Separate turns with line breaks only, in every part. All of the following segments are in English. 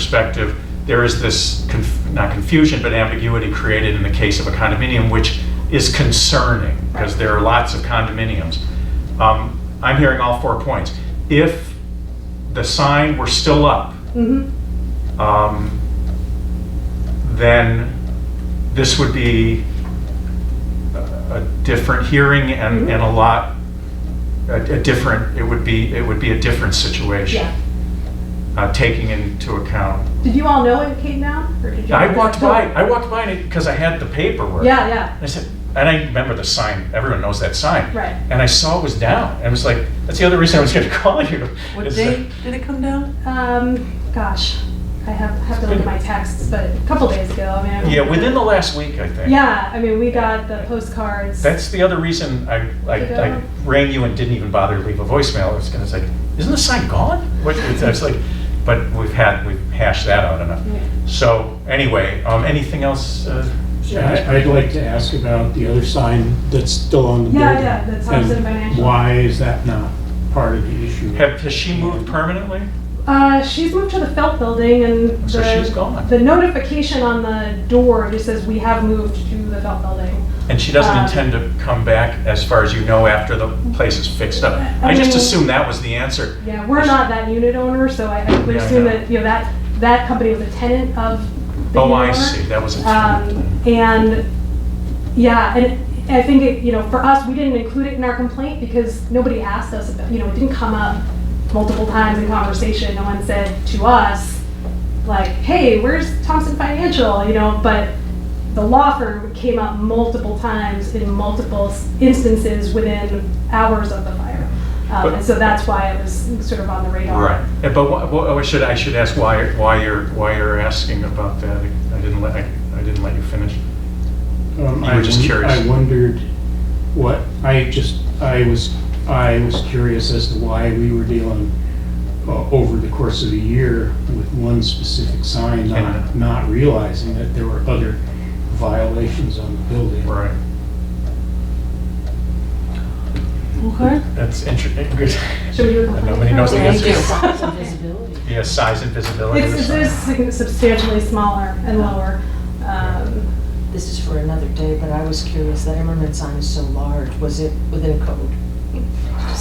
perspective, there is this, conf- not confusion, but ambiguity created in the case of a condominium, which is concerning, because there are lots of condominiums. Um, I'm hearing all four points. If the sign were still up,
Mhm.
um, then this would be a a different hearing and, and a lot, a, a different, it would be, it would be a different situation.
Yeah.
Uh, taking into account,
Did you all know it came down? or did you-
I walked by, I walked by it because I had the paperwork.
Yeah, yeah.
I said, and I remember the sign, everyone knows that sign.
Right.
And I saw it was down, and I was like, that's the other reason I was gonna call you.
What
is
date did it come down?
Um, gosh, I have, have to look at my texts, but a couple days ago, I mean. I
that-
don't-
Yeah, within the last week, I think.
Yeah, I mean, we got the postcards.
That's the other reason I, I, I rang you and didn't even bother to leave a voicemail. I was gonna say, isn't the sign gone? What, I was like, but we've had, we've hashed that out enough.
Yeah.
So, anyway, um, anything else? uh,
Yeah, I- I'd like to ask about the other sign that's still on the building.
Yeah, yeah, that's on
and
City Financial.
Why is that not part of the issue?
Have, has she moved permanently?
Uh, she's moved to the Felt Building and
So
the.
she's gone.
The notification on the door just says, we have moved to the Felt Building.
And she doesn't
Um,
intend to come back, as far as you know, after the place is fixed up? I just
mean-
assumed that was the answer.
Yeah, we're not that unit owner, so I I would
Yeah, I
assume
know.
that, you know, that, that company was a tenant of the
Oh,
unit
I
owner.
see, that was a
Um, And, yeah, and I think, it you know, for us, we didn't include it in our complaint because nobody asked us, about you know, it didn't come up multiple times in conversation. No one said to us, like, hey, where's Thompson Financial, you know, but the law firm came up multiple times in multiple s- instances within hours of the fire. Um, And so that's why it was sort of on the radar.
Right, Yeah, but wha- wha- oh, I should, I should ask why, why you're, why you're asking about that? I didn't let, I I didn't let you finish.
Um,
You
I
were just
won-
curious.
I wondered what, I just, I was, I was curious as to why we were dealing uh, over the course of a year with one specific sign, not,
And-
not realizing that there were other violations on the building.
Right.
Okay.
That's interesting.
Should we do a complaint?
Nobody knows the
Thank
answer.
you.
Yeah, size and visibility.
It's,
or
it is
something.
sig- substantially smaller and lower. Um,
This is for another day, but I was curious, that Emmerman sign is so large, was it within code?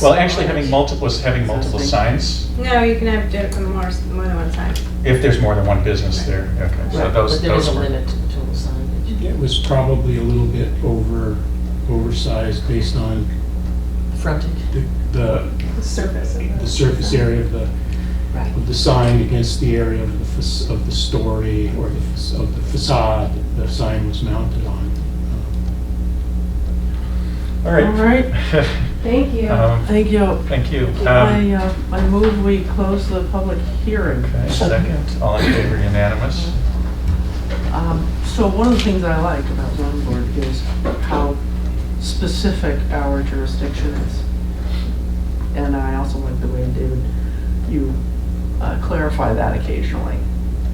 Well, actually, having multiple, having multiple signs,
No, you can have di- more, more than one sign.
if there's more than one business there, okay. So
Right,
those,
But there is
those
a
were-
limit to the total signage.
It was probably a little bit over, oversized based on
Frontage.
the- the,
the surface. of
the surface area of the,
Right.
of the sign against the area of the, fac- of the story or the fac- of the facade that the sign was mounted on.
All
All
right.
right,
Thank you.
Um,
thank you.
Thank you.
I,
Um,
uh, I move we close the public hearing.
Okay, second, all in favor, unanimous?
Um, So one of the things I like about zoning board is how specific our jurisdiction is. And I also like the way, David, you uh, clarify that occasionally.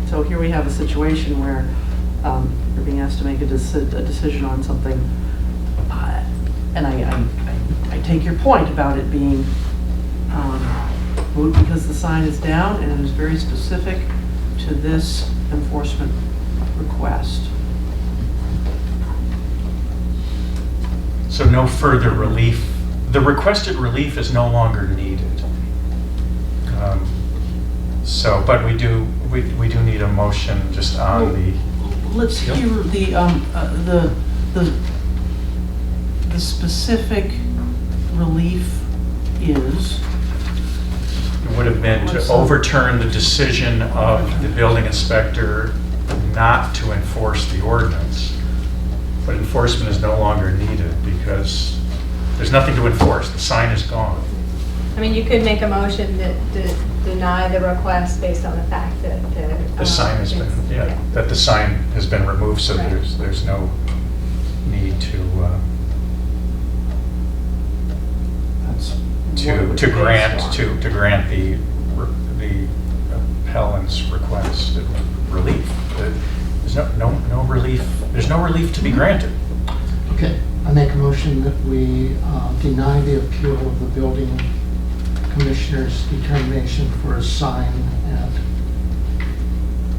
So here we have a situation where um, we're being asked to make a deci- a decision on something. uh, And I, I- I I take your point about it being um, moot because the sign is down and it is very specific to this enforcement request.
So no further relief, the requested relief is no longer needed. Um, So, but we do, we we do need a motion just on the,
Let's
Yep.
hear the, um, uh, the, the, the specific relief is,
it would have been to overturn the decision of the building inspector not to enforce the ordinance. But enforcement is no longer needed because there's nothing to enforce, the sign is gone.
I mean, you could make a motion that to deny the request based on the fact that the.
The
um,
sign has been,
it's-
yeah, that the sign has been removed, so
Right.
there's, there's no need to, uh,
that's.
to, to grant, to, to grant the, re- the appellant's request of relief. There's no, no, no relief, there's no relief to be granted.
Okay, I make a motion that we uh, deny the appeal of the building commissioner's determination for a sign at